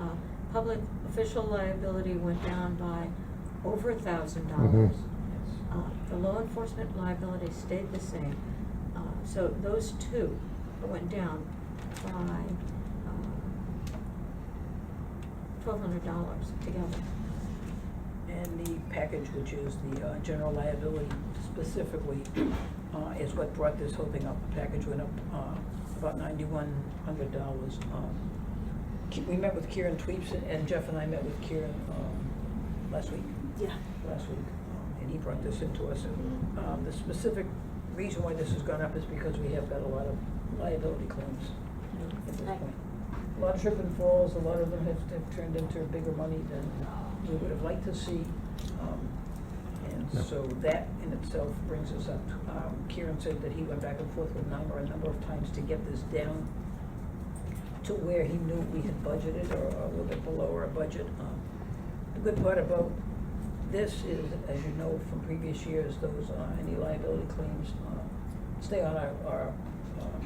uh, public official liability went down by over a thousand dollars. Mm-hmm. Uh, Yes. Um, The law enforcement liability stayed the same. Uh, So those two went down by uh, twelve hundred dollars together. And the package, which is the uh, general liability specifically, uh, is what brought this whole thing up. The package went up uh, about ninety-one hundred dollars. Um, We met with Kieran Tweeps, and Jeff and I met with Kieran um, last week, Yeah. last week, um, and he brought this into us. And um, The specific reason why this has gone up is because we have got a lot of liability claims at this Right. point. A lot of trip and falls, a lot of them have have turned into bigger money than uh, we would have liked to see. um, Yeah. And so that in itself brings us up. Um, Kieran said that he went back and forth with number a number of times to get this down to where he knew we had budgeted or a little bit below our budget. Um, The good part about this is, as you know from previous years, those, uh, any liability claims uh, stay on our, our um,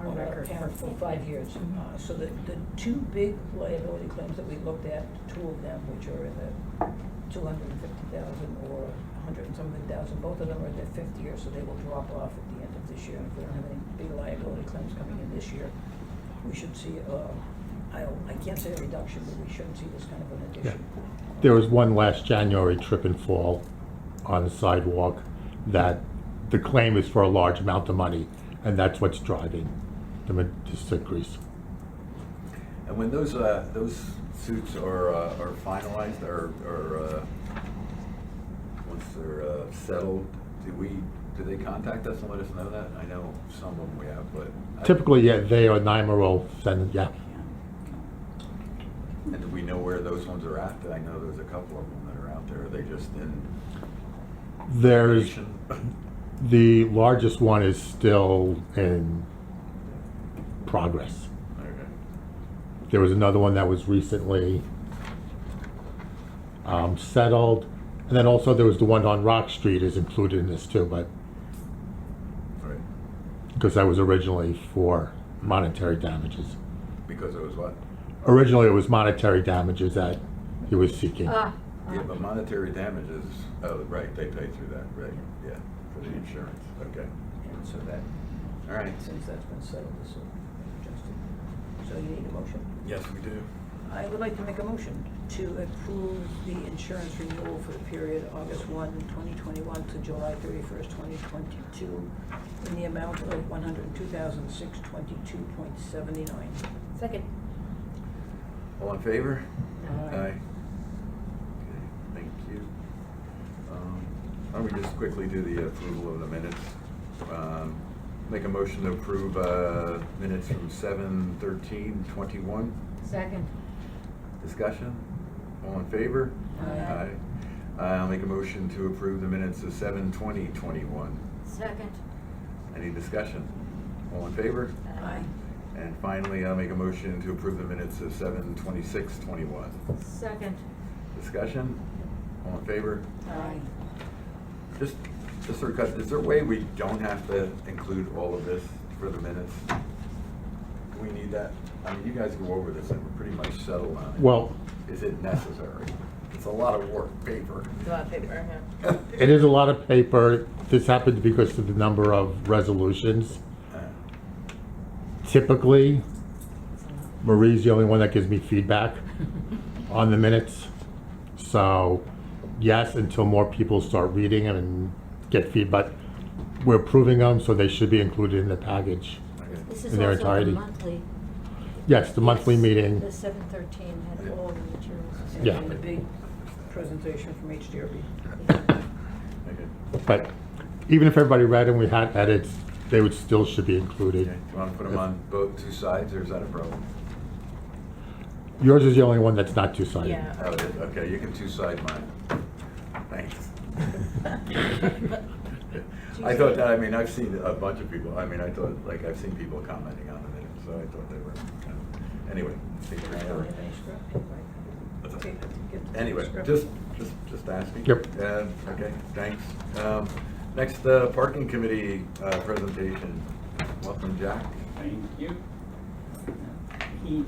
Our on record account for- For five years. Uh, So the, the two big liability claims that we looked at, two of them, which are in the two hundred and fifty thousand or a hundred and something thousand, both of them are at their fifth year, so they will drop off at the end of this year. If we don't have any big liability claims coming in this year, we should see, uh, I don't, I can't say a reduction, but we shouldn't see this kind of an addition. There was one last January trip and fall on the sidewalk that the claim is for a large amount of money, and that's what's driving the, ma- this increase. And when those, uh, those suits are, uh, are finalized, or, or, uh, once they're, uh, settled, do we, do they contact us and let us know that? I know some of them we have, but. I- Typically, yeah, they or NYMER will send, yeah, And do we know where those ones are at? I know there's a couple of them that are out there. Are they just in? there's, litigation? the largest one is still in progress. Okay. There was another one that was recently um, settled, and then also there was the one on Rock Street is included in this too, but All right. because that was originally for monetary damages. Because it was what? Originally, it was monetary damages that he was seeking. Ah, ah. Yeah, but monetary damages, oh, right, they pay through that, right, yeah, for the insurance, okay. And so that, All right. since that's been settled, this will be adjusted. So you need a motion? Yes, we do. I would like to make a motion to approve the insurance renewal for the period August 1, 2021 to July 31st, 2022 in the amount of $102,622.79. Second. All in favor? Aye. Okay, thank you. Um, Why don't we just quickly do the approval of the minutes? Um, Make a motion to approve uh, minutes from seven thirteen twenty-one. Second. Discussion? All in favor? Aye. Aye. I'll make a motion to approve the minutes of seven twenty twenty-one. Second. Any discussion? All in favor? Aye. And finally, I'll make a motion to approve the minutes of seven twenty-six twenty-one. Second. Discussion? All in favor? Aye. Just, just sort of cut, is there a way we don't have to include all of this for the minutes? Do we need that? I mean, you guys go over this and we're pretty much settled on it. Well, Is it necessary? It's a lot of work, paper. It's a lot of paper, huh? it is a lot of paper. This happened because of the number of resolutions. Uh, Typically, Marie's the only one that gives me feedback on the minutes. So, yes, until more people start reading them and get feedback, we're approving them, so they should be included in the package. okay. This is In their also the entirety. monthly. Yes, the monthly Yes, meeting. The seven thirteen had all the materials. And Yeah. then the big presentation from HDRB. Okay. But even if everybody read and we had edits, they would still should be included. Okay. Do you want to put them on both, two sides, or is that a problem? Yours is the only one that's not two-sided. Yeah. Oh, it is, okay, you can two-side mine. Thanks. I thought that, I mean, I've seen a bunch of people, I mean, I thought, like, I've seen people commenting on the minute, so I thought they were, kind of- anyway. I think I we're don't sure. have any script. That's Okay, okay. get to the Anyway, script. just, just, just asking. Yep. Uh, okay, thanks. Um, next, uh, parking committee, uh, presentation. Welcome, Jack. Thank you. He